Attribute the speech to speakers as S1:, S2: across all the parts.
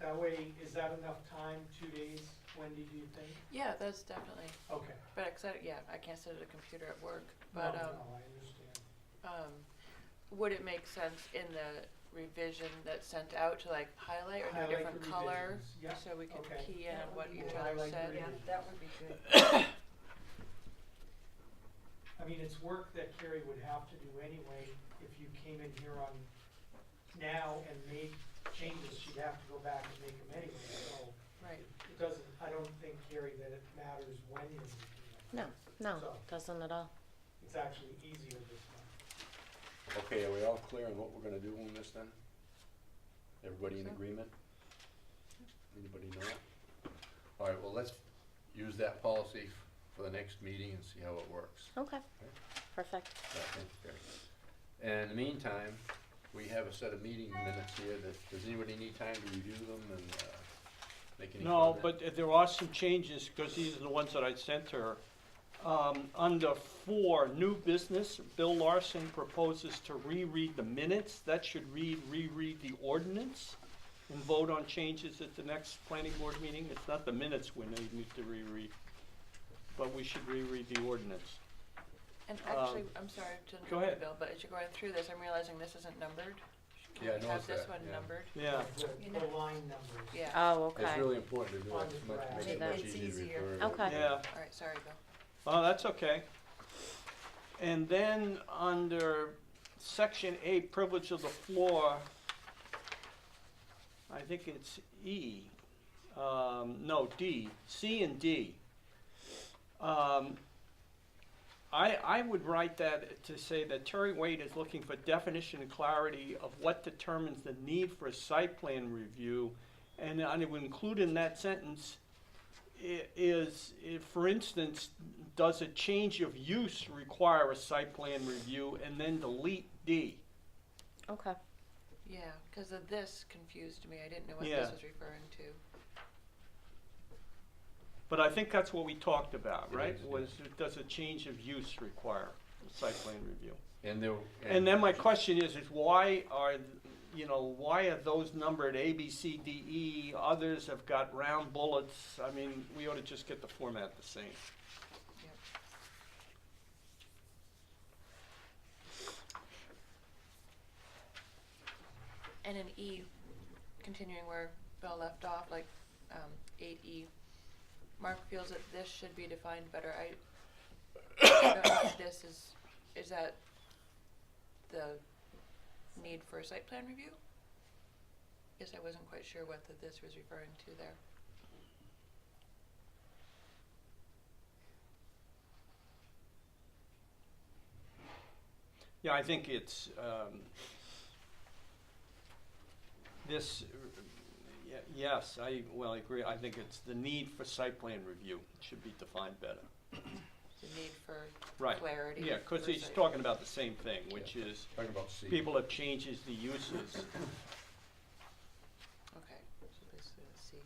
S1: Three, is that enough time, two days, Wendy, do you think?
S2: Yeah, that's definitely,
S1: Okay.
S2: but I, 'cause I- yeah, I can't sit at a computer at work,
S1: No,
S2: but, um,
S1: Oh, no, I understand.
S2: um, would it make sense in the revision that's sent out to like highlight or do a
S1: Highlight
S2: different
S1: the
S2: color?
S1: revisions, yeah,
S2: So we can
S1: okay.
S2: key in
S3: That
S2: on
S3: would
S2: what
S3: be
S2: each
S3: good.
S2: other
S1: Highlight the
S2: said.
S3: Yeah,
S1: revisions.
S3: that would be good.
S1: I mean, it's work that Carrie would have to do anyway. If you came in here on now and made changes, she'd have to go back and make them anyway, so
S2: Right,
S1: it doesn't, I don't think, Carrie, that it matters when you do that.
S4: No, no,
S1: So-
S4: doesn't at all.
S1: It's actually easier this time.
S5: Okay, are we all clear on what we're gonna do on this then? Everybody in
S2: So.
S5: agreement? Anybody not? All right, well, let's use that policy f- for the next meeting and see how it works.
S4: Okay, perfect.
S5: So I think it's fair. And in the meantime, we have a set of meeting minutes here that, does anybody need time to review them and, uh, make any
S6: No,
S5: comment?
S6: but there are some changes, because these are the ones that I sent her. Um, under four, new business, Bill Larson proposes to reread the minutes. That should read, reread the ordinance and vote on changes at the next planning board meeting. It's not the minutes we need need to reread, but we should reread the ordinance.
S2: and
S6: Um,
S2: actually, I'm sorry to
S6: go
S2: interrupt you,
S6: ahead.
S2: Bill, but as you're going through this, I'm realizing this isn't numbered. Can
S5: Yeah, I
S2: we
S5: noticed
S2: Have this
S5: that,
S2: one
S5: yeah.
S2: numbered,
S6: Yeah,
S1: The- The line numbers.
S2: yeah,
S4: Oh,
S5: It's
S4: okay.
S5: really important to do
S1: On
S5: it,
S1: the
S5: it's much,
S1: graph.
S5: makes it
S4: It-
S5: much
S3: it's
S5: easier to
S3: easier.
S5: refer.
S4: Okay.
S6: yeah.
S2: alright, sorry, Bill.
S6: Oh, that's okay. And then under section eight, privilege of the floor, I think it's E, um, no, D, C and D. Um, I, I would write that to say that Terry Wade is looking for definition and clarity of what determines the need for a site plan review. And I would include in that sentence i- is, if, for instance, does a change of use require a site plan review? And then delete D.
S4: Okay.
S2: Yeah, cause the this confused me, I didn't know what
S6: Yeah.
S2: this was referring to.
S6: But I think that's what we talked about,
S5: It
S6: right?
S5: is, yeah.
S6: Was, does a change of use require a site plan review?
S5: And there.
S6: And then my question is, is why are, you know, why are those numbered A, B, C, D, E? Others have got round bullets. I mean, we ought to just get the format the same.
S2: And in E, continuing where Bill left off, like, um, eight E, Mark feels that this should be defined better, I, I don't know if this is, is that the need for a site plan review? Guess I wasn't quite sure what the this was referring to there.
S6: Yeah, I think it's, um, this, uh, y- yes, I, well, I agree, I think it's the need for site plan review should be defined better.
S2: the need for
S6: Right,
S2: clarity.
S6: yeah, because
S2: for
S6: he's
S2: site-
S6: talking about the same thing, which is
S5: Talking about C.
S6: people have changes the uses.
S2: Okay, so basically, let's see.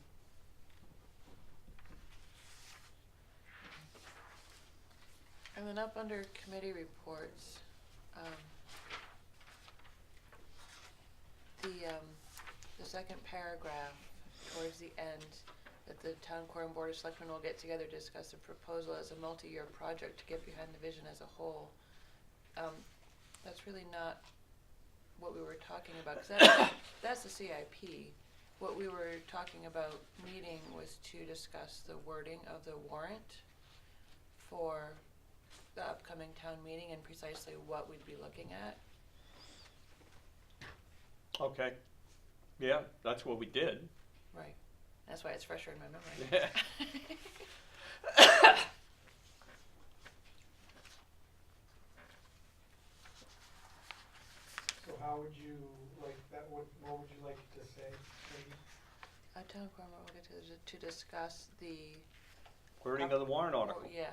S2: And then up under committee reports, um, the, um, the second paragraph towards the end, that the town core and board of selectmen will get together to discuss the proposal as a multi-year project to get behind the vision as a whole. Um, that's really not what we were talking about, 'cause that's, that's the CIP. What we were talking about meeting was to discuss the wording of the warrant for the upcoming town meeting and precisely what we'd be looking at.
S6: Okay, yeah, that's what we did.
S2: Right. That's why it's fresher in my memory.
S1: So how would you like that, what, what would you like to say, Wendy?
S2: A town forum will get to, to discuss the.
S6: Wording of the warrant
S2: or-
S6: article.
S2: Oh, Yeah,